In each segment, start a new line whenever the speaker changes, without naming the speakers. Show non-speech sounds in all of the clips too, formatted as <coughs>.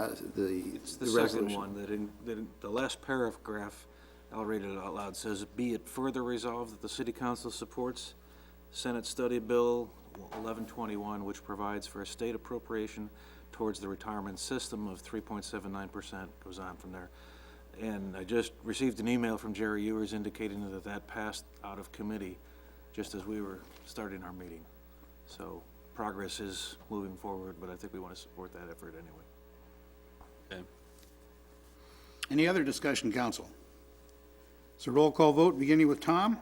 uh, the,
It's
the
the second
resolution.
one, that in, that in, the last paragraph, I'll read it out loud, says, "Be it further resolved that the city council supports Senate Study Bill 1121, which provides for a state appropriation towards the retirement system of 3.79%," goes on from there. And I just received an email from Jerry Ewers indicating that that passed out of committee just as we were starting our meeting. So progress is moving forward, but I think we want to support that effort anyway.
Okay.
Any other discussion, council? It's a roll call vote, beginning with Tom,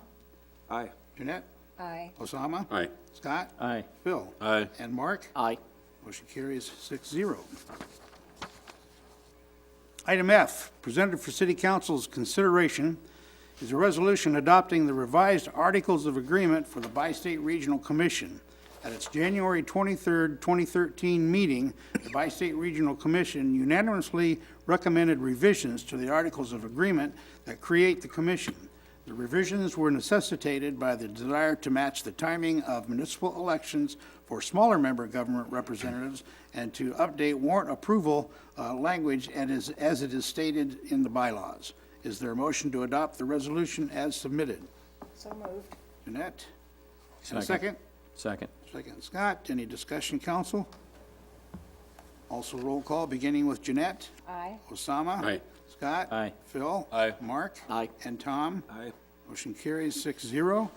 Aye.
Jeanette,
Aye.
Osama.
Aye.
Scott.
Aye.
Phil.
Aye.
And Mark.
Aye.
Motion carries six zero. Item F, presented for city council's consideration is a resolution adopting the revised Articles of Agreement for the Bi-State Regional Commission. At its January 23rd, 2013 meeting, the Bi-State Regional Commission unanimously recommended revisions to the Articles of Agreement that create the commission. The revisions were necessitated by the desire to match the timing of municipal elections for smaller member government representatives and to update warrant approval uh, language and is- as it is stated in the bylaws. Is there a motion to adopt the resolution as submitted?
So moved.
Jeanette? And a
Second.
second?
Second.
Second, Scott. Any discussion, council? Also roll call, beginning with Jeanette.
Aye.
Osama?
Aye.
Scott?
Aye.
Phil?
Aye.
Mark?
Aye.
And Tom?
Aye.
Motion carries six zero.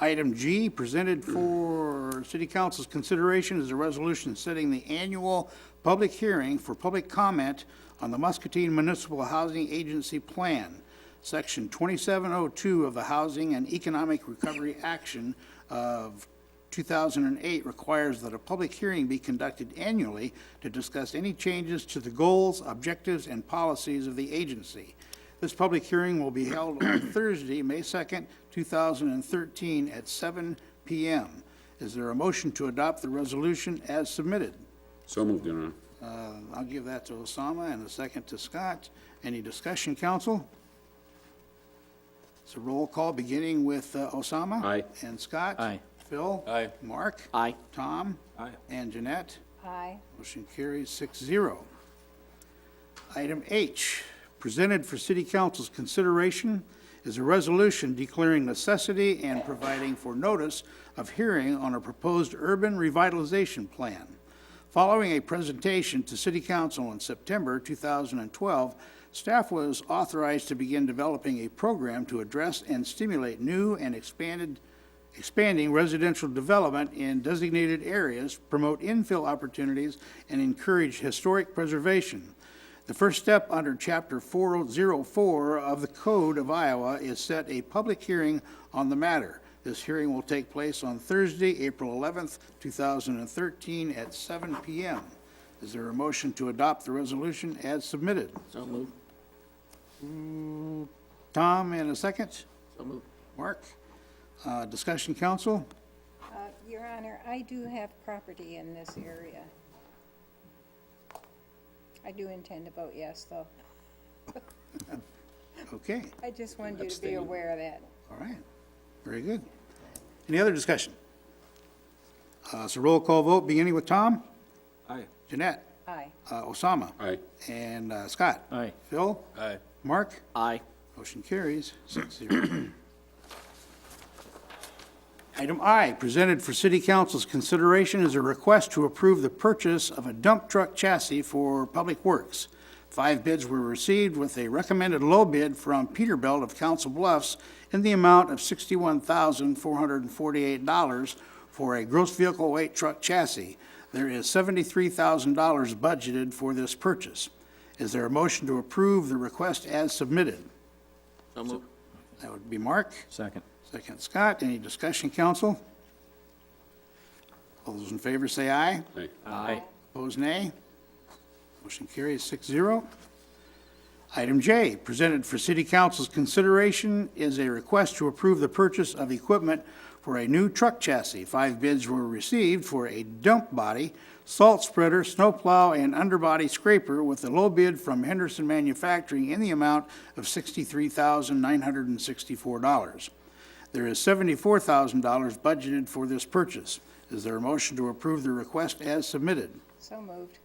Item G, presented for city council's consideration is a resolution setting the annual public hearing for public comment on the Muscatine Municipal Housing Agency Plan, Section 2702 of the Housing and Economic Recovery Action of 2008 requires that a public hearing be conducted annually to discuss any changes to the goals, objectives, and policies of the agency. This public hearing will be held on <coughs> Thursday, May 2nd, 2013, at 7 PM. Is there a motion to adopt the resolution as submitted?
So moved, Your Honor.
Uh, I'll give that to Osama and a second to Scott. Any discussion, council? It's a roll call, beginning with uh, Osama.
Aye.
And Scott.
Aye.
Phil.
Aye.
Mark.
Aye.
Tom.
Aye.
And Jeanette.
Aye.
Motion carries six zero. Item H, presented for city council's consideration is a resolution declaring necessity and providing for notice of hearing on a proposed urban revitalization plan. Following a presentation to city council in September 2012, staff was authorized to begin developing a program to address and stimulate new and expanded expanding residential development in designated areas, promote infill opportunities, and encourage historic preservation. The first step under Chapter 404 of the Code of Iowa is set a public hearing on the matter. This hearing will take place on Thursday, April 11th, 2013, at 7 p.m. Is there a motion to adopt the resolution as submitted?
So moved.
Tom, in a second.
So moved.
Mark? Uh, Discussion, council?
Uh, Your Honor, I do have property in this area. I do intend to vote yes, though.
Okay.
I just wanted you to be aware of that.
All right, very good. Any other discussion? Uh, So roll call vote, beginning with Tom,
Aye.
Jeanette,
Aye.
uh, Osama,
Aye.
and uh, Scott.
Aye.
Phil,
Aye.
Mark,
Aye.
motion carries, six zero. <clears throat> Item I, presented for city council's consideration is a request to approve the purchase of a dump truck chassis for Public Works. Five bids were received with a recommended low bid from Peterbilt of Council Bluffs in the amount of $61,448 for a gross vehicle weight truck chassis. There is $73,000 budgeted for this purchase. Is there a motion to approve the request as submitted?
So moved.
That would be Mark.
Second.
Second, Scott. Any discussion, council? All those in favor say aye.
Aye.
Aye.
Opposed, nay. Motion carries six zero. Item J, presented for city council's consideration is a request to approve the purchase of equipment for a new truck chassis. Five bids were received for a dump body, salt spreader, snowplow, and underbody scraper with a low bid from Henderson Manufacturing in the amount of sixty-three thousand nine hundred and sixty-four dollars. There is seventy-four thousand dollars budgeted for this purchase. Is there a motion to approve the request as submitted?
So moved.